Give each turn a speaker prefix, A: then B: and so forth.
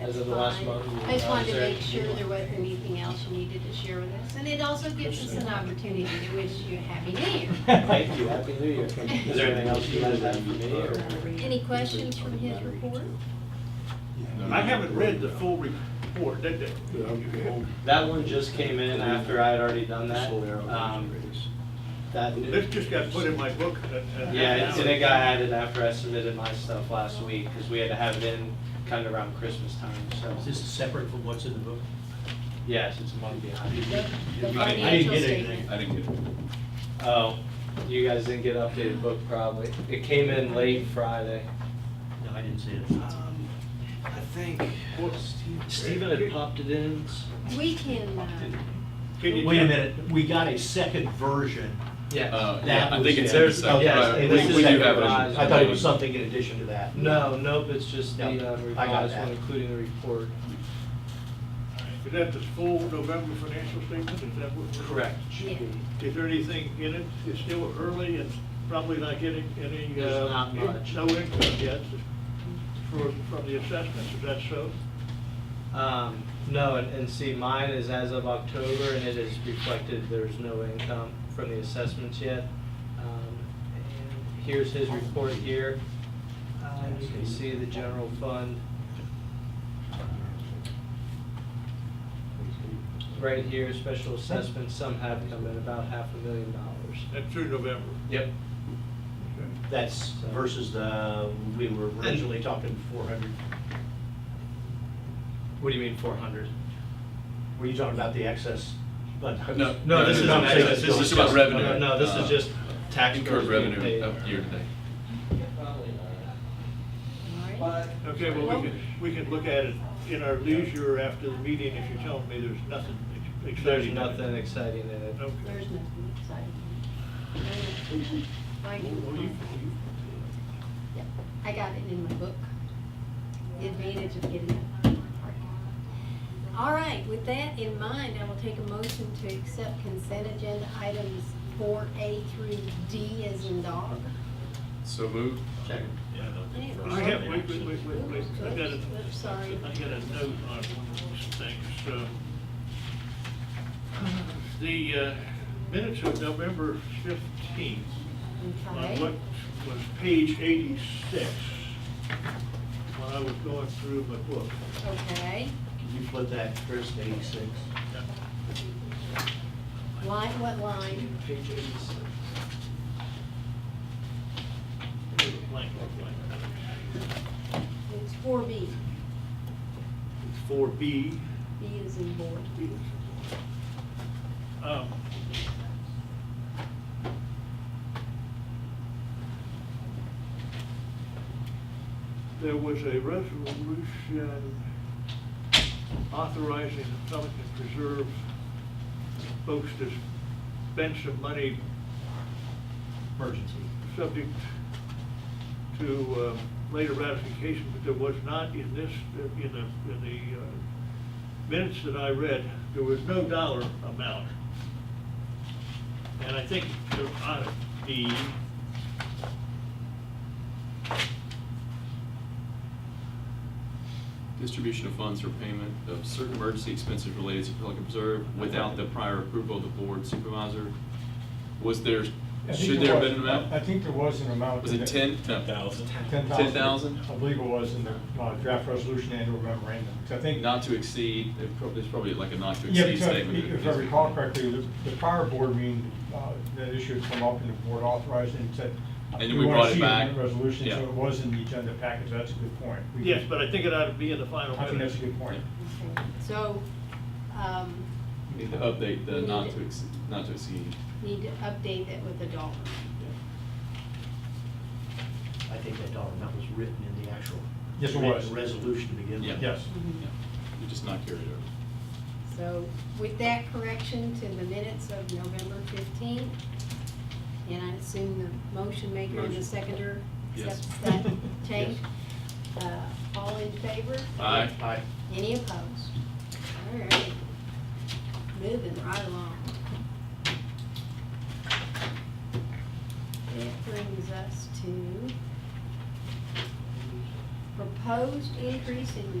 A: As
B: that's
A: of the last
B: fine.
A: month, you
B: I just wanted to make
A: advised
B: sure
A: her.
B: there wasn't anything else you needed to share with us, and it also gives us an opportunity to wish you a happy new year.
A: Thank you, happy new year. Is there anything else you guys have for me or?
B: Any questions from his report?
C: I haven't read the full report, did they?
A: That one just came in after I had already done that. Um, That, new-
C: This just got put in my book. uh, uh,
A: yeah, it's- and it got added after I submitted my stuff last week because we had to have it in kind of around Christmas time, so.
D: Is this separate from what's in the book?
A: Yes, it's a month
B: The
A: behind.
B: the
E: I didn't
B: financial
D: get anything.
B: statement.
E: I didn't get it.
A: Oh, you guys didn't get updated book probably. It came in late Friday.
D: No, I didn't see it.
A: I think Stephen had popped it in.
B: We can, uh,
C: Can you
D: Wait a
C: tell-
D: minute, we got a second version.
A: Yeah.
E: Uh, yeah,
D: That
E: I
D: was
E: think it's
D: it.
E: in the second.
A: Yes,
E: but I-
A: it
E: we-
A: is the
E: we do
A: second
E: have it.
A: rise.
D: I thought it was something in addition to that.
A: No, nope, it's just the
D: No,
A: uh,
D: I got
A: revised one,
D: that.
A: including the report.
C: Is that the full November financial statement? Is that what?
A: It should be.
C: Is there anything in it? It's still early and probably not getting any.
A: There's
C: uh,
A: not much.
C: No income yet for, from the assessments, is that so?
A: Um, no, and, and see, mine is as of October, and it is reflected, there's no income from the assessments yet. Um, and Here's his report here. Um, you can see the general fund. Right here, special assessments, some have come in about half a million dollars.
C: And through November?
A: Yep.
C: Okay.
D: That's versus the, we were originally talking four hundred.
A: What do you mean, four hundred?
D: Were you talking about the excess? But
E: No.
A: No, this isn't
E: I'm saying
A: excess, this is
E: This is about
A: just-
E: revenue.
A: no, no, this is
E: uh,
A: just tax bills
E: Incurred
A: being
E: revenue
A: paid.
E: of year to date.
B: all right.
C: Okay, well, we can, we can look at it in our leisure after the meeting if you're telling me there's nothing ex-
A: There's
C: exciting. in it.
A: nothing exciting in it.
C: Okay.
B: There's nothing exciting. I can- yeah, I got it in my book. The advantage of getting it. All right, with that in mind, I will take a motion to accept consent agenda items four A through D as in dog.
E: So moved.
C: I have, wait, wait, wait, wait, wait, I got a,
B: Oops, sorry.
C: I got a note on one of these things, um, the uh, minutes of November fifteenth, on
B: Okay.
C: Uh, what was page eighty-six, when I was going through my book.
B: Okay,
D: Can you put that, Chris, to eighty-six?
B: line, what line?
A: Page eighty-six.
C: It was a blank, blank, blank.
B: It's four B,
C: It's four B.
B: B is in board.
C: Um, There was a resolution authorizing the Pelican Preserve folks to spend some money
D: Emergency.
C: subject to uh, later ratification, but there was not in this, in the, in the uh, minutes that I read, there was no dollar amount. And I think there ought to be.
E: Distribution of funds for payment of certain emergency expenses related to Pelican Preserve without the prior approval of the board supervisor. Was there,
F: I think
E: should there have
F: was-
E: been an amount?
F: I think there was an amount.
E: Was it ten? Thousand. Ten thousand?
F: I believe it was in the uh, draft resolution and or memorandum, 'Cause I think.
E: Not to exceed, there's prob- there's probably like a not to
F: Yeah,
E: exceed
F: because
E: statement.
F: if if I recall correctly, the the prior board meeting, uh, that issue had come up and the board authorized it and said.
E: And then we
F: wanna
E: brought it
F: see the
E: back.
F: Resolution, so
E: Yeah.
F: it was in the agenda package, that's a good point. We-
C: Yes, but I think it ought to be in the final
F: I think that's
C: minutes.
F: a good point.
B: Okay. So, um,
E: Need to update the not to exceed, not to exceed.
B: need to update that with the dollar.
D: I think that dollar amount was written in the actual.
F: Yes, it
D: written
F: was.
D: Resolution to begin with.
E: Yeah.
F: Yes.
B: Mm-hmm.
E: Yeah. You just not carried over.
B: So with that correction to the minutes of November fifteenth, and I assume the motion maker and the
E: Motion.
B: seconder
E: Yes.
B: accepts that change. Uh, All in favor?
E: Aye.
D: Aye.
B: Any opposed? All right, moving right along. That brings us to proposed increase in